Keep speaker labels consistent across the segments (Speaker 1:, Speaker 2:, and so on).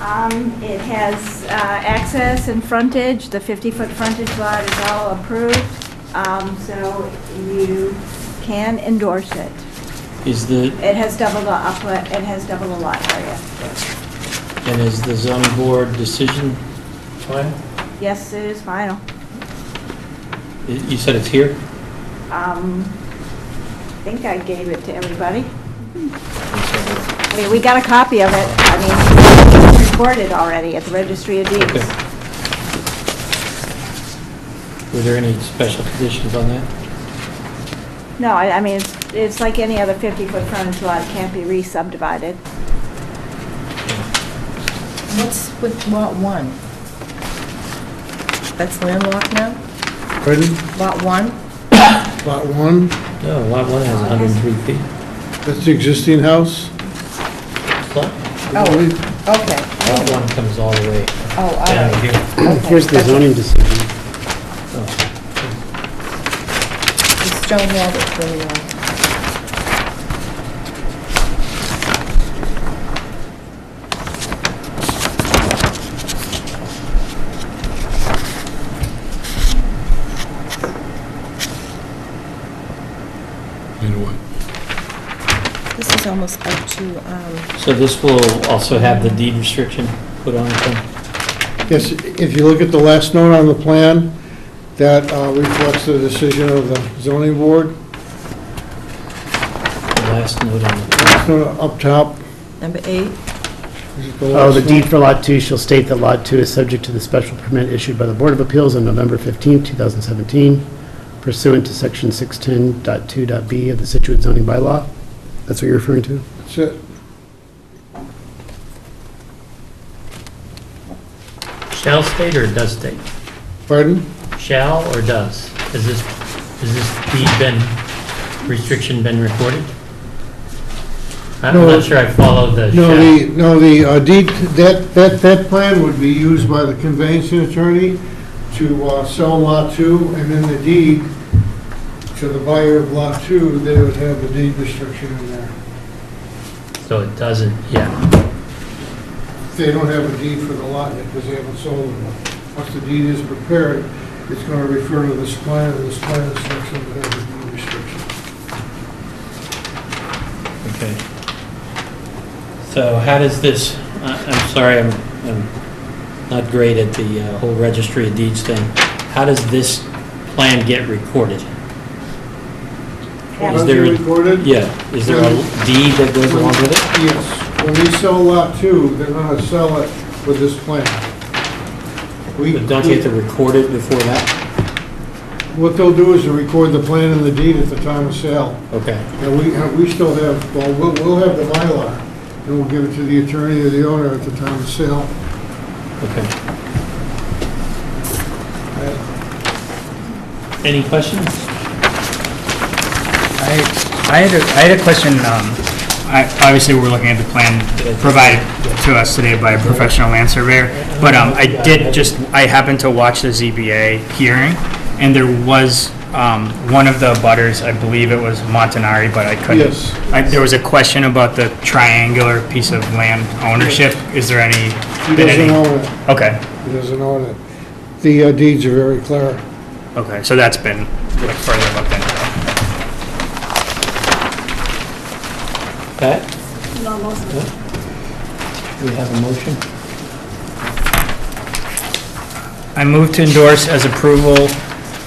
Speaker 1: Um, It has uh, access and frontage, the 50-foot frontage lot is all approved, um, so you can endorse it.
Speaker 2: Is the,
Speaker 1: It has double the upland, it has double the lot area.
Speaker 2: and is the zoning board decision final?
Speaker 1: Yes, it is final.
Speaker 2: Y- You said it's here?
Speaker 1: Um, I think I gave it to everybody.
Speaker 2: Okay.
Speaker 1: I mean, we got a copy of it, I mean, it's recorded already at the Registry of Deeds.
Speaker 2: Were there any special conditions on that?
Speaker 1: No, I, I mean, it's, it's like any other 50-foot frontage lot, it can't be re-subdivided.
Speaker 3: What's with lot one? That's landlocked now?
Speaker 4: Pardon?
Speaker 3: Lot one?
Speaker 4: Lot one,
Speaker 2: No, lot one has 103 feet.
Speaker 4: that's the existing house?
Speaker 2: Lot
Speaker 3: Oh, okay.
Speaker 2: lot one comes all the way
Speaker 3: Oh, all
Speaker 2: down
Speaker 3: right.
Speaker 2: here.
Speaker 3: Okay.
Speaker 5: Here's the
Speaker 3: That's
Speaker 5: zoning decision.
Speaker 2: Oh,
Speaker 3: The stone wall that's really long.
Speaker 4: And what?
Speaker 3: This is almost up to, um,
Speaker 2: So this will also have the deed restriction put on it
Speaker 4: Yes, if you look at the last note on the plan, that uh, reflects the decision of the zoning board,
Speaker 2: then, the last note on the
Speaker 4: It's not up top.
Speaker 3: number eight.
Speaker 4: Is it the
Speaker 5: Oh, the
Speaker 4: last
Speaker 5: deed for Lot 2 shall state that Lot 2 is subject to the special permit issued by the Board of Appeals on November 15, 2017 pursuant to Section 610.2.b of the Situate zoning bylaw. That's what you're referring to?
Speaker 4: one? That's it.
Speaker 6: Shall state or does state?
Speaker 4: Pardon?
Speaker 6: Shall or does? Has this, has this deed been, restriction been recorded? I'm
Speaker 4: No.
Speaker 6: not sure I follow the
Speaker 4: No,
Speaker 6: shall.
Speaker 4: the, no, the uh, deed, that, that, that plan would be used by the conveyancing attorney to uh, sell Lot 2, and then the deed to the buyer of Lot 2, they would have the deed restriction in there.
Speaker 6: So it doesn't, yeah.
Speaker 4: They don't have a deed for the lot yet because they haven't sold it. Once the deed is prepared, it's going to refer to this plan, and this plan is section that has a deed restriction.
Speaker 2: Okay. So how does this, I- I'm sorry, I'm I'm not great at the uh, whole registry of deeds thing. How does this plan get recorded?
Speaker 1: Yeah.
Speaker 2: Is
Speaker 4: Once
Speaker 2: there-
Speaker 4: you record it?
Speaker 2: Yeah, is there a deed that goes along with it?
Speaker 4: Yes. When we sell lot two, they're going to sell it with this plan. We,
Speaker 2: But don't you have to record it before that?
Speaker 4: what they'll do is to record the plan and the deed at the time of sale.
Speaker 2: Okay,
Speaker 4: And we, have- we still have, well, we'll, we'll have the Mylar, and we'll give it to the attorney or the owner at the time of sale.
Speaker 2: okay.
Speaker 4: Uh,
Speaker 2: Any questions?
Speaker 7: I I had a, I had a question, um, I, obviously, we're looking at the plan provided to us today by a professional land surveyor, but, um, I did just, I happened to watch the ZBA hearing, and there was, um, one of the butters, I believe it was Montanari, but I couldn't.
Speaker 4: Yes.
Speaker 7: I, there was a question about the triangular piece of land ownership, is there any?
Speaker 4: He
Speaker 7: been any-
Speaker 4: doesn't own it.
Speaker 7: Okay,
Speaker 4: He doesn't own it. The uh, deeds are very clear.
Speaker 7: okay, so that's been, like, further looked into.
Speaker 2: Pat? We have a motion?
Speaker 7: I move to endorse as approval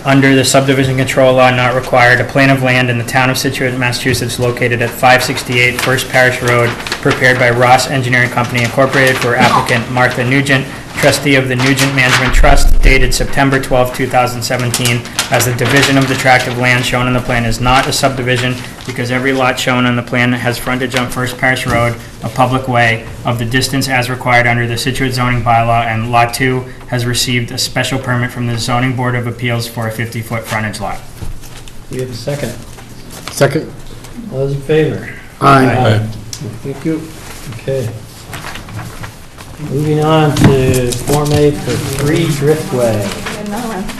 Speaker 7: under the subdivision control law not required, a plan of land in the town of Situate, Massachusetts, located at 568 First Parish Road, prepared by Ross Engineering Company Incorporated for applicant Martha Nugent, trustee of the Nugent Management Trust, dated September 12, 2017, as the division of the tract of land shown on the plan is not a subdivision because every lot shown on the plan has frontage on First Parish Road, a public way, of the distance as required under the Situate zoning bylaw, and Lot 2 has received a special permit from the Zoning Board of Appeals for a 50-foot frontage lot.
Speaker 2: We have a second.
Speaker 5: Second?
Speaker 2: All those in favor?
Speaker 5: Aye.
Speaker 2: Thank you. Okay. Moving on to Form A for Three Driftway.
Speaker 1: Another one.